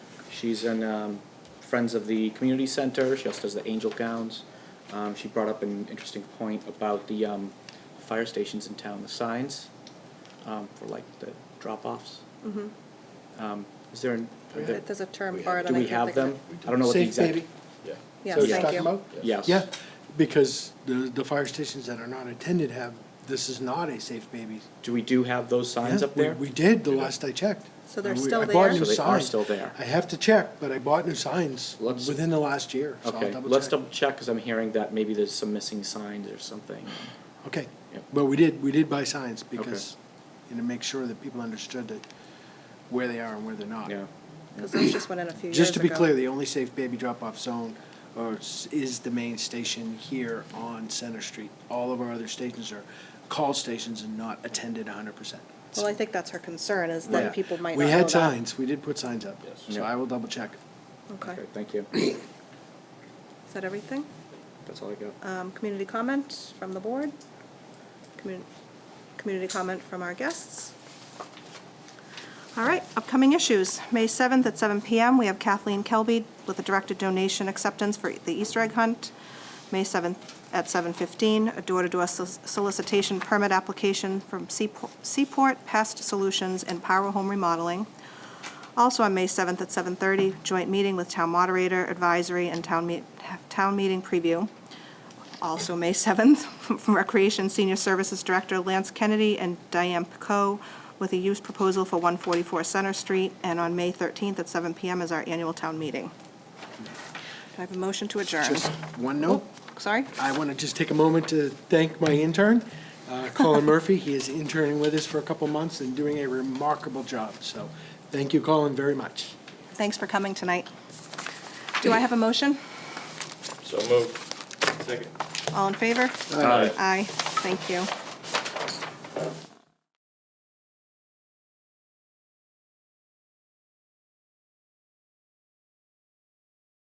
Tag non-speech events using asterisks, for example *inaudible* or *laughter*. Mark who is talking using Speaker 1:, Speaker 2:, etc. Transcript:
Speaker 1: She's in um, Friends of the Community Center. She also does the Angel Gowns. Um, she brought up an interesting point about the um, fire stations in town, the signs um, for like the drop-offs.
Speaker 2: Mhm.
Speaker 1: Um, is there? An, are there
Speaker 2: There's a term
Speaker 3: We
Speaker 2: for it.
Speaker 1: do
Speaker 3: have-
Speaker 2: and I
Speaker 1: we
Speaker 2: can't
Speaker 1: have
Speaker 2: think
Speaker 1: them?
Speaker 2: of it.
Speaker 1: I don't know what the
Speaker 3: Safe
Speaker 1: exact.
Speaker 3: baby?
Speaker 4: Yeah.
Speaker 2: Yes,
Speaker 3: So you're
Speaker 2: thank
Speaker 3: talking
Speaker 2: you.
Speaker 3: about?
Speaker 1: Yes.
Speaker 3: Yeah, because the, the fire stations that are not attended have, this is not a safe baby.
Speaker 1: Do we do have those signs
Speaker 3: Yeah,
Speaker 1: up
Speaker 3: we-
Speaker 1: there?
Speaker 3: We did, the last I checked.
Speaker 2: So they're
Speaker 3: And we-
Speaker 2: still
Speaker 3: I bought
Speaker 2: there?
Speaker 3: new
Speaker 1: So they are
Speaker 3: signs.
Speaker 1: still there.
Speaker 3: I have to check, but I bought new signs
Speaker 1: Let's-
Speaker 3: within the last year, so I'll
Speaker 1: Okay,
Speaker 3: double
Speaker 1: let's
Speaker 3: check.
Speaker 1: double check, because I'm hearing that maybe there's some missing signs or something.
Speaker 3: Okay,
Speaker 1: Yep.
Speaker 3: but we did, we did buy signs because, you know, make sure that people understood that where they are and where they're not.
Speaker 1: Yeah,
Speaker 2: Because those just went in a few years ago.
Speaker 3: Just to be clear, the only safe baby drop-off zone or s- is the main station here on Center Street. All of our other stations are call stations and not attended hundred percent.
Speaker 2: Well, I think that's her concern, is that people might not
Speaker 3: We
Speaker 2: know
Speaker 3: had
Speaker 2: that.
Speaker 3: signs, we did put signs up,
Speaker 4: Yes.
Speaker 3: so
Speaker 1: Yeah.
Speaker 3: I will double check.
Speaker 2: Okay.
Speaker 1: okay, thank you.
Speaker 2: Is that everything?
Speaker 1: That's all I got.
Speaker 2: Um, Community comment from the board? Commu- Community comment from our guests? All right, upcoming issues. May 7th at 7 PM, we have Kathleen Kelby with a directed donation acceptance for the Easter egg hunt. May 7th at 7:15, a door-to-door solic- solicitation permit application from Seapo- Seaport Pest Solutions and Power Home Remodeling. Also on May 7th at 7:30, joint meeting with town moderator, advisory, and town meet, town meeting preview. Also May 7th, *laughs* from Recreation Senior Services Director Lance Kennedy and Diane Pico with a use proposal for 144 Center Street. And on May 13th at 7 PM is our annual town meeting. Do I have a motion to adjourn?
Speaker 3: Just one note,
Speaker 2: Sorry?
Speaker 3: I want to just take a moment to thank my intern, uh,
Speaker 2: *laughs*
Speaker 3: Colin Murphy. He is interning with us for a couple months and doing a remarkable job, so thank you, Colin, very much.
Speaker 2: Thanks for coming tonight. Do I have a motion?
Speaker 4: So moved. Second.
Speaker 2: All in favor?
Speaker 4: Aye.
Speaker 2: Aye, thank you.